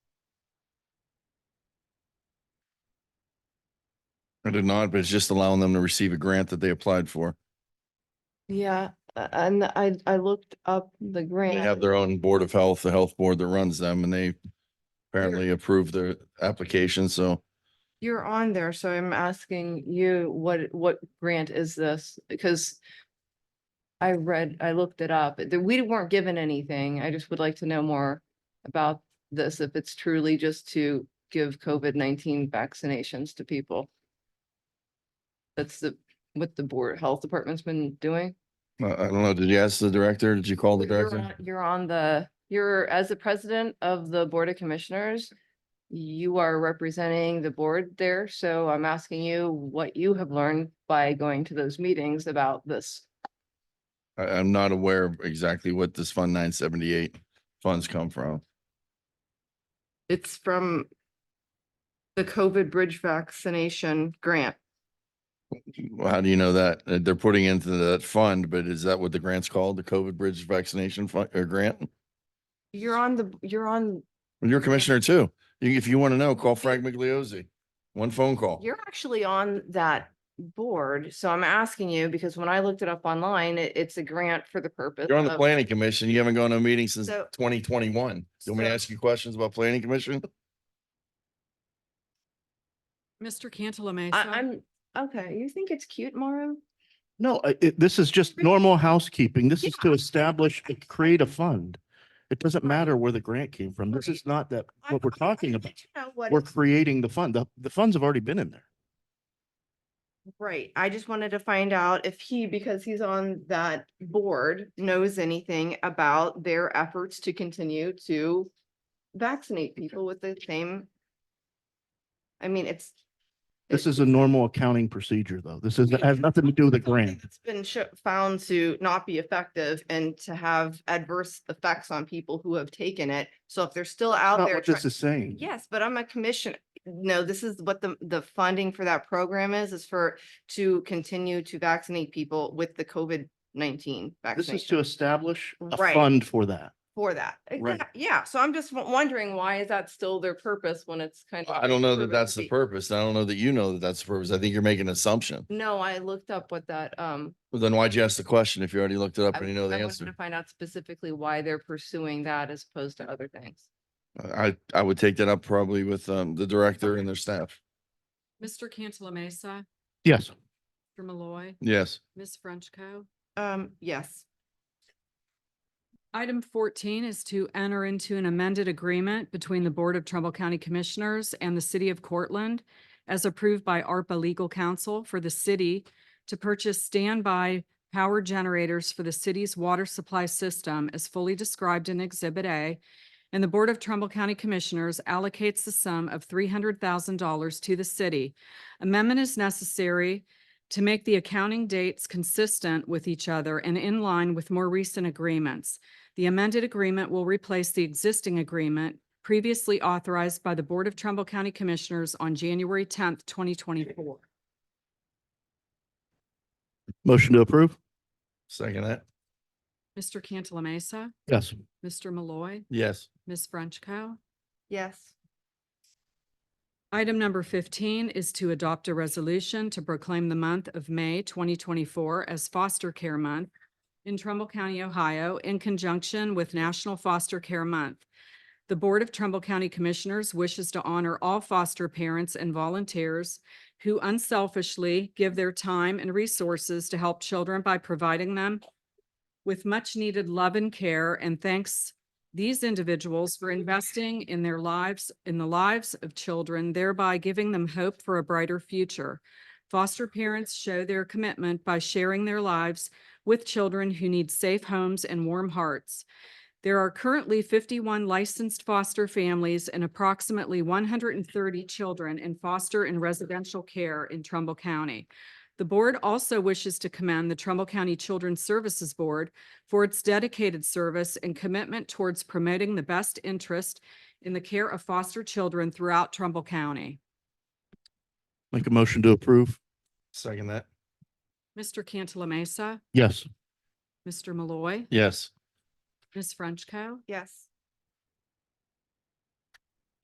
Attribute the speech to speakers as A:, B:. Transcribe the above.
A: I did not, but it's just allowing them to receive a grant that they applied for.
B: Yeah, a- and I, I looked up
A: They
B: the
A: have
B: grant.
A: their own Board of Health, the health board that runs them, and they apparently approved their application, so
B: You're on there, so I'm asking you, what, what grant is this? Because I read, I looked it up. The- We weren't given anything. I just would like to know more about this, if it's truly just to give COVID-19 vaccinations to people. That's the, what the board, health department's been doing.
A: I, uh, I don't know, did you ask the director? Did you call the
B: But you're on-
A: director?
B: You're on the, you're, as the president of the Board of Commissioners, you are representing the board there, so I'm asking you what you have learned by going to those meetings about this.
A: I, I'm not aware of exactly what this Fund nine seventy-eight funds come from.
B: It's from the COVID bridge vaccination grant.
A: Well, How do you know that? Uh, They're putting into that fund, but is that what the grant's called? The COVID Bridge Vaccination Fund, or grant?
B: You're on the, you're on,
A: Well, You're a commissioner too. You- If you want to know, call Frank Migliozzi. One phone call.
B: you're actually on that board, so I'm asking you, because when I looked it up online, it, it's a grant for the purpose.
A: You're on the
B: of-
A: planning commission. You haven't gone to a meeting since
B: Um, So-
A: twenty twenty-one. You want me to
B: so-
A: ask you questions about planning commission?
C: Mr. Cantala Mesa.
B: I, I'm, okay, you think it's cute, Mauro?
D: No, I- it, this is just normal housekeeping. This is to establish, and create a fund. It doesn't matter where the grant came from. This is not that,
B: I-
D: what we're
B: I- I
D: talking
B: wanted
D: about.
B: to know what
D: We're
B: it's-
D: creating the fund. The, the funds have already been in there.
B: Right, I just wanted to find out if he, because he's on that board, knows anything about their efforts to continue to vaccinate people with the same. I mean, it's.
D: This
B: it-
D: is a normal accounting procedure, though. This is,
B: Yeah.
D: has nothing to do with the
B: something
D: grant.
B: that's Been sho- found to not be effective and to have adverse effects on people who have taken it. So if they're still out
D: Not
B: there.
D: what
B: try-
D: this is saying.
B: Yes, but I'm a commissioner. No, this is what the, the funding for that program is, is for, to continue to vaccinate people with the COVID-19
D: This is to
B: vaccination
D: establish a
B: Right.
D: fund for that.
B: for that.
D: Right.
B: Exact- Yeah, so I'm just w- wondering, why is that still their purpose when it's kind of?
A: I don't know
B: proven
A: that
B: to
A: that's the
B: be-
A: purpose. I don't know that you know that that's the purpose. I think you're making an assumption.
B: No, I looked up what that, um,
A: Well, Then why'd you ask the question if you already looked it
B: I
A: up and you know the
B: I wanted to
A: answer?
B: find out specifically why they're pursuing that as opposed to other things.
A: I, I would take that up probably with, um, the director and their staff.
C: Mr. Cantala Mesa,
D: Yes.
C: Mr. Malloy,
A: Yes.
C: Ms. Frenchco.
B: Um, yes.
C: Item fourteen is to enter into an amended agreement between the Board of Trumbull County Commissioners and the City of Cortland as approved by ARPA Legal Counsel for the city to purchase standby power generators for the city's water supply system as fully described in Exhibit A. And the Board of Trumbull County Commissioners allocates the sum of three hundred thousand dollars to the city. Amendment is necessary to make the accounting dates consistent with each other and in line with more recent agreements. The amended agreement will replace the existing agreement previously authorized by the Board of Trumbull County Commissioners on January tenth, twenty twenty-four.
D: Motion to approve?
A: Second that?
C: Mr. Cantala Mesa,
D: Yes.
C: Mr. Malloy,
A: Yes.
C: Ms. Frenchco.
B: Yes.
C: Item number fifteen is to adopt a resolution to proclaim the month of May twenty twenty-four as Foster Care Month in Trumbull County, Ohio, in conjunction with National Foster Care Month. The Board of Trumbull County Commissioners wishes to honor all foster parents and volunteers who unselfishly give their time and resources to help children by providing them with much-needed love and care and thanks these individuals for investing in their lives, in the lives of children, thereby giving them hope for a brighter future. Foster parents show their commitment by sharing their lives with children who need safe homes and warm hearts. There are currently fifty-one licensed foster families and approximately one hundred and thirty children in foster and residential care in Trumbull County. The board also wishes to commend the Trumbull County Children's Services Board for its dedicated service and commitment towards promoting the best interest in the care of foster children throughout Trumbull County.
D: Make a motion to approve?
A: Second that?
C: Mr. Cantala Mesa,
D: Yes.
C: Mr. Malloy,
A: Yes.
C: Ms. Frenchco.
B: Yes.